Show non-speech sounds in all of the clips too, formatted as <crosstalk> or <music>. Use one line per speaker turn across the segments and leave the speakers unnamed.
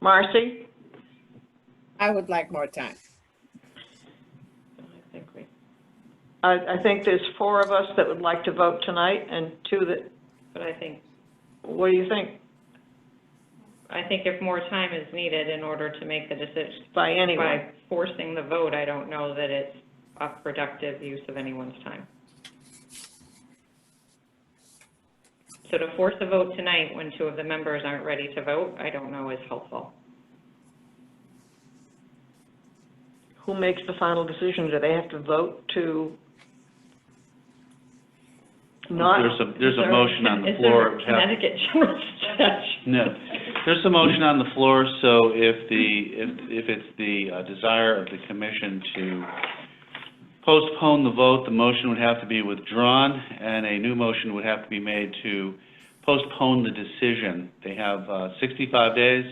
Marcy?
I would like more time.
I think we. I, I think there's four of us that would like to vote tonight and two that,
But I think,
what do you think,
I think if more time is needed in order to make the decision,
by anyone?
by forcing the vote, I don't know that it's a productive use of anyone's time. So to force a vote tonight when two of the members aren't ready to vote, I don't know is helpful.
Who makes the final decision? Do they have to vote to not?
There's a, there's
Is
a
there-
motion on the
is there
floor.
a
Yeah.
Connecticut <laughs> general statute.
No, there's a motion on the floor, so if the, if, if it's the uh, desire of the commission to postpone the vote, the motion would have to be withdrawn, and a new motion would have to be made to postpone the decision. They have uh, 65 days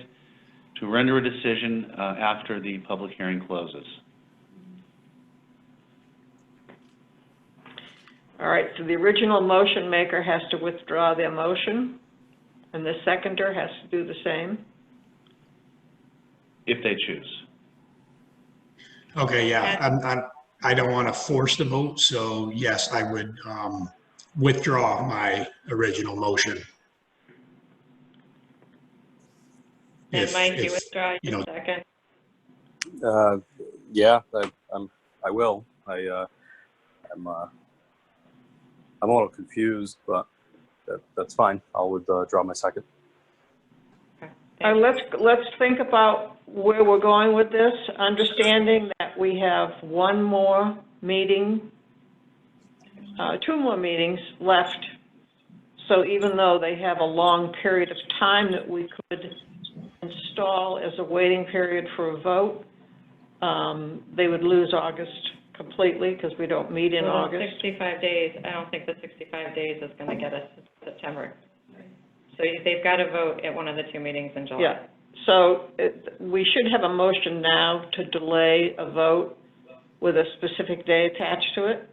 to render a decision uh, after the public hearing closes.
All right, so the original motion maker has to withdraw their motion, and the seconder has to do the same.
If they choose.
Okay, yeah, I'm, I'm, I don't want to force the vote, so yes, I would um, withdraw my original motion.
And
If-
Mike, you
if-
withdraw
you
your
know-
second.
Uh, yeah, I, I'm. I will. I. Uh, I'm. Uh, I'm a little confused, but that, that's fine. I'll withdraw my second.
Uh, let's, let's think about where we're going with this, understanding that we have one more meeting, uh, two more meetings left. So even though they have a long period of time that we could install as a waiting period for a vote, um, they would lose August completely because we don't meet in
Well,
August.
65 days, I don't think the 65 days is going to get us to September. So you- they've got to vote at one of the two meetings in July.
Yeah. So it, we should have a motion now to delay a vote with a specific day attached to it,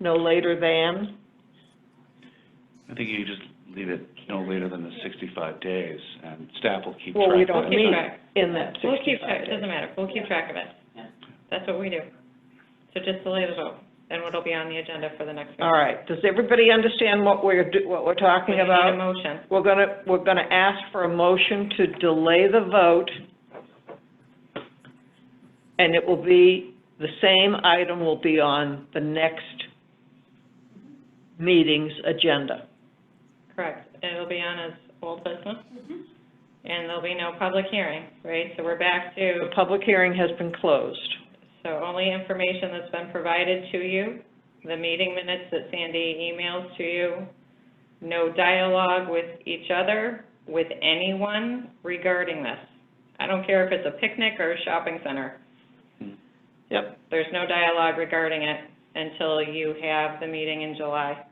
no later than.
I think you just leave it no later than the 65 days, and staff will keep track.
Well, we
of
don't
We'll
that.
keep
meet
track.
in that
We'll keep
65
track, it
days.
doesn't matter, we'll keep track of it. That's what we do. So just delay the vote, and it'll be on the agenda for the next meeting.
All right, does everybody understand what we're, do- what we're
We
talking
need a
about?
motion.
We're gonna, we're gonna ask for a motion to delay the vote, and it will be, the same item will be on the next meeting's agenda.
Correct, and it'll be on as old business. And there'll be no public hearing, right? So we're back
The
to,
public hearing has been closed.
so only information that's been provided to you, the meeting minutes that Sandy emails to you, no dialogue with each other, with anyone regarding this. I don't care if it's a picnic or a shopping center.
Yep.
There's no dialogue regarding it until you have the meeting in July.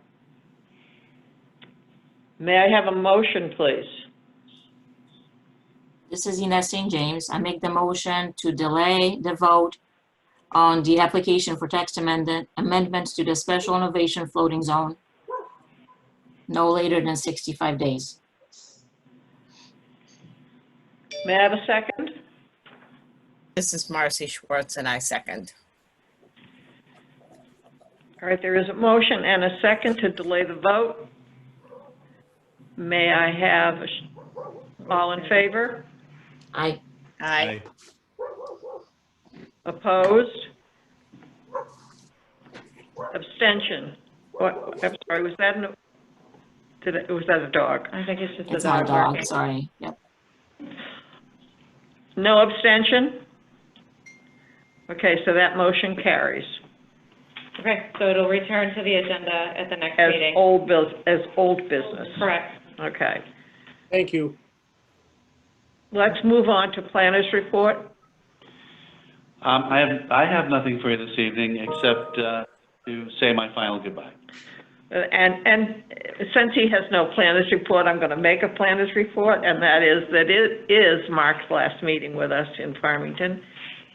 May I have a motion, please?
This is Ines St. James. I make the motion to delay the vote on the application for text amendment, amendments to the special innovation floating zone no later than 65 days.
May I have a second?
This is Marcy Schwartz, and I second.
All right, there is a motion and a second to delay the vote. May I have, a sh- all in favor?
I,
Aye.
Opposed? Abstention? What, I'm sorry, was that, an- did, it- was that a dog?
I think it's just
it's
a
not a
dog barking.
dog, sorry. Yep.
No abstention? Okay, so that motion carries
Okay, so it'll return to the agenda at the next
as
meeting.
old, bus- as old business.
Correct.
Okay.
Thank you.
Let's move on to planners report.
Um, I have, I have nothing for you this evening, except uh, to say my final goodbye.
Uh, And, and since he has no planners report, I'm going to make a planners report, and that is that it is Mark's last meeting with us in Farmington.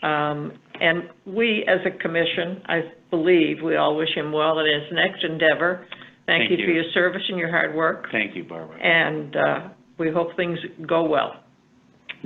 Um, And we, as a commission, I believe, we all wish him well in his next endeavor. Thank
Thank
you for
you.
your service and your hard work,
Thank you, Barbara.
and uh, we hope things go well.